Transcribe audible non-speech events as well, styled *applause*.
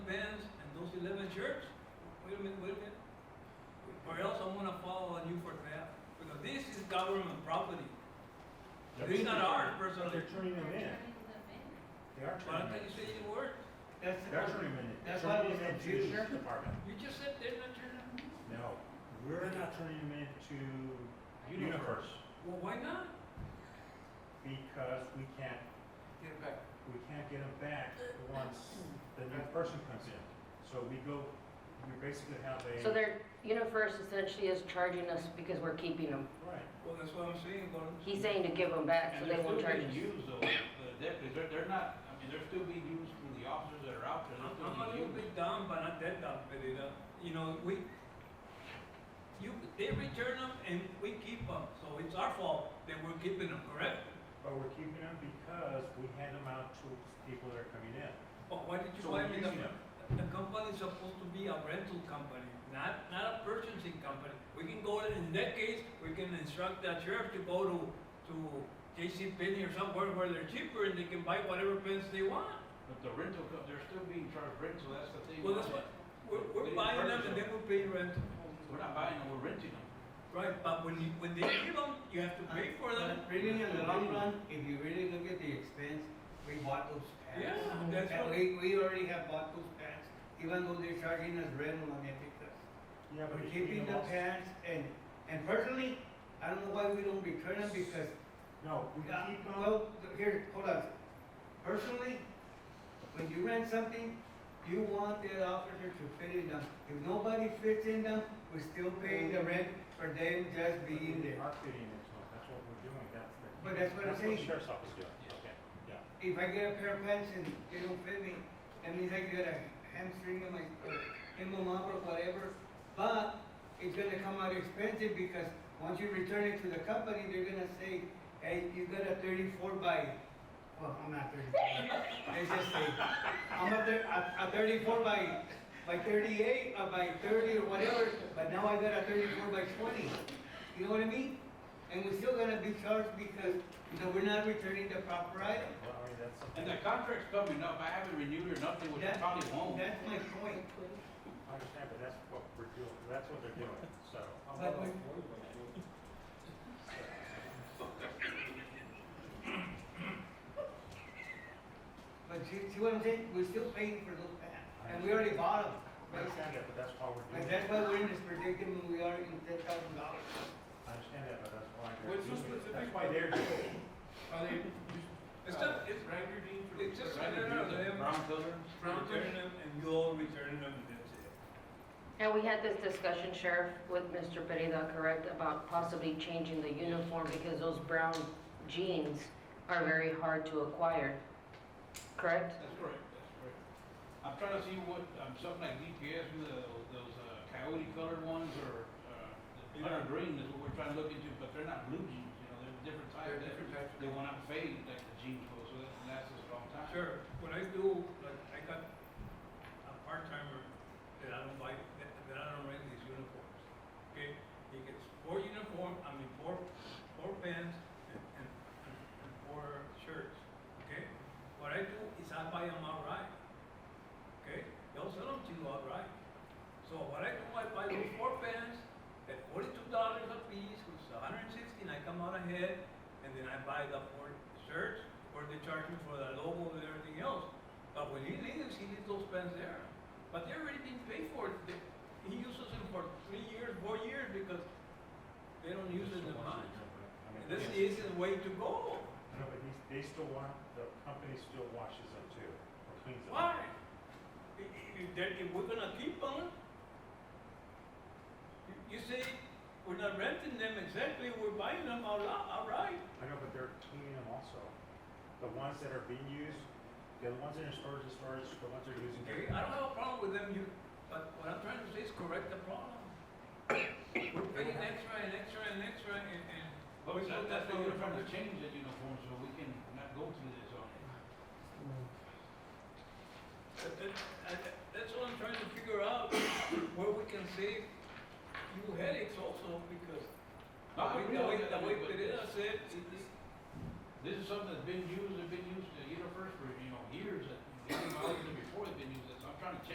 agreement with it, or else I'm gonna fall on you for theft, because this is government property. It's not ours They're personally, turning them in. Turning them in. They are but I turning thought you them in. said you were, They're turning them in. That's why I Turning was them in to confused. the sheriff department. you just said they're not turning. No, we're not turning them in to Universe Well, why not? because we can't, Get it back. we can't get them back once the new person comes in. So we go, we basically have a. So their UniFirst essentially is charging us because we're keeping them. Right. Well, that's what I'm saying, Gordon. He's saying to give them back, so And they they're won't still charge being us. used though, the deputies, they're, they're not, I mean, they're still being used through the officers that are out there. I'm I'm a They're still little being used. bit down, but not that down, Pereira. You know, we, you, they return them and we keep them, so it's our fault that we're keeping them, correct? But we're keeping them because we hand them out to people that are coming in. But Oh, why did you So buy we're me using the, them. the company's supposed to be a rental company, not, not a purchasing company. We can go, in that case, we can instruct the sheriff to go to, to J.C. Penney or somewhere where they're cheaper and they can buy whatever pens they want. But the rental, co- they're still being charged rent, so that's the thing. Well, that's what, we're, we're buying them and then we pay rental. We're not buying them, we're renting them. Right, but when you, when they give them, you have to pay for them. But Really, in the long run, if you really look at the expense, we bought those pants. Yeah, that's And what- We, we already have bought those pants, even though they're charging us rental on Epicus. Yeah, We're we- keeping the pants and, and personally, I don't know why we don't return them because, No, we keep uh, them. well, here, hold on. Personally, when you rent something, you want that officer to fit in them. If nobody fits in them, we still pay the rent for them just being They there. are fitting into it, that's what we're doing, that's the. But that's what I'm saying. Sheriff's office is doing, Yeah. okay, yeah. If I get a pair of pants and they don't fit me, that means I get a hamstring in my, in my mom or whatever. But it's gonna come out expensive because once you return it to the company, they're gonna say, hey, you got a thirty-four by, well, I'm not thirty-four. They just say, I'm a thir- a, a thirty-four by, by thirty-eight or by thirty or whatever, but now I got a thirty-four by twenty. You know what I mean? And we're still gonna be charged because, because we're not returning the proper item. Well, I mean, that's. And the contract's coming up, I haven't renewed or nothing, which I That- probably won't. Oh, That's my point. I understand, but that's what we're doing, that's what they're doing, so. But we- But you see what I'm saying? We're still paying for those pants. And we already bought them. I understand that, but that's why we're doing Like, that's it. why we're in this predicament, we are in ten thousand dollars. I understand that, but that's why they're What's the doing it. That's specific- why they're doing it. Are they, It's not, it's, Wrangler Dean for? it's just, Right, no, no, the no, Brown color. them returning them and you all returning them and that's it. And we had this discussion, Sheriff, with Mr. Pereira, correct, about possibly changing the uniform because those brown jeans are very hard to acquire, correct? That's correct, that's correct. I'm trying to see what, um, something like DPS, with the- those uh, coyote colored ones or, uh, the color green is what we're trying to look into, but they're not blue jeans, you know, they're different types. They're different types. They will not fade like the jeans will, so that lasts us a long time. Sure, what I do, like, I got a part-timer that I don't buy, that, that I don't rent these uniforms, okay? He gets four uniform, I mean, four, four pants and, and, and and four shirts, okay? What I do is I buy them outright, okay? They'll sell them to you outright. So what I do, I buy those four pants at forty-two dollars a piece, which is a hundred and sixteen, I come out ahead, and then I buy the four shirts, or they charge me for the logo and everything else. But when he leaves, he leaves those pants there. But they're already being paid for, it. They- he uses them for three years, four years, because they don't use it in mine. I mean, And This is the yes. easiest way to go. No, but these- they still want, the company still washes them too, or cleans them. Why? I- i- If, that- if we're gonna keep on, you- you say, we're not renting them exactly, we're buying them all, all right. I know, but they're cleaning them also. The ones that are being used, the ones that are stored in storage, the ones that are using. Okay, I don't have a problem with them, you, but what I'm trying to say is correct the problem. We're paying extra and extra and extra and, and. But we we- thought that's the why we're trying uniform- to change that uniform, so we can not go through this on it. That- that- I- That's what I'm trying to figure out, where we can save you headaches also, because Not the way, the way, the way Pereira said, it- it- This is something *coughs* that's been used, and been used, uh, you know, first for, you know, years, that, before they've been used, so I'm trying to change